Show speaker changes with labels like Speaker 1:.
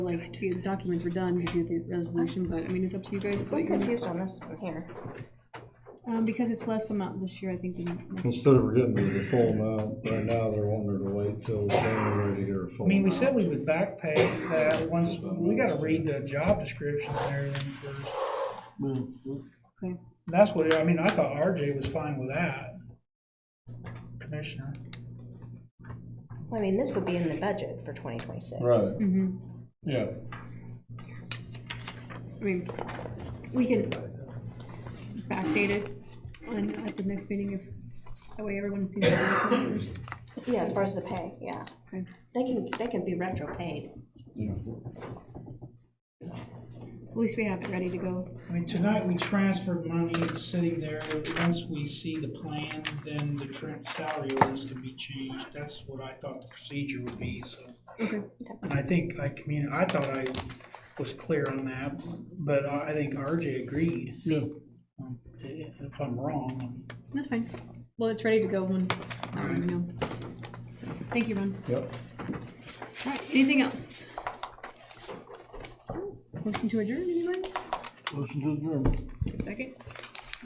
Speaker 1: like, the documents were done, we did the resolution, but, I mean, it's up to you guys. what
Speaker 2: I'm
Speaker 1: you wanna-
Speaker 2: confused on this one here.
Speaker 1: Um, because it's less amount this year, I think, than next.
Speaker 3: Instead of getting the full amount, right now they're wanting her to wait till January to get her full
Speaker 4: I mean, we
Speaker 3: amount.
Speaker 4: said we would back pay that once, we gotta read the job descriptions and everything first.
Speaker 1: Okay.
Speaker 4: That's what, I mean, I thought RJ was fine with that. Commissioner.
Speaker 2: I mean, this would be in the budget for twenty twenty-six.
Speaker 3: Right,
Speaker 1: Mm-hmm.
Speaker 3: yeah.
Speaker 1: I mean, we can backdate it on, at the next meeting if, that way everyone sees it first.
Speaker 2: Yeah, as far as the pay, yeah.
Speaker 1: Okay.
Speaker 2: They can, they can be retro paid.
Speaker 1: At least we have it ready to go.
Speaker 4: I mean, tonight we transferred money, it's sitting there, once we see the plan, then the tran- salary orders can be changed, that's what I thought the procedure would be, so.
Speaker 1: Okay.
Speaker 4: And I think, I commu, I thought I was clear on that, but I I think RJ agreed.
Speaker 3: Yeah.
Speaker 4: Um, i- i- If I'm wrong,
Speaker 1: That's fine. Well, it's ready to go when, I don't know. Thank you, Ron.
Speaker 3: Yep.
Speaker 1: All right, anything else? Motion to adjourn, anybody?
Speaker 3: Listen to the German.
Speaker 1: Second?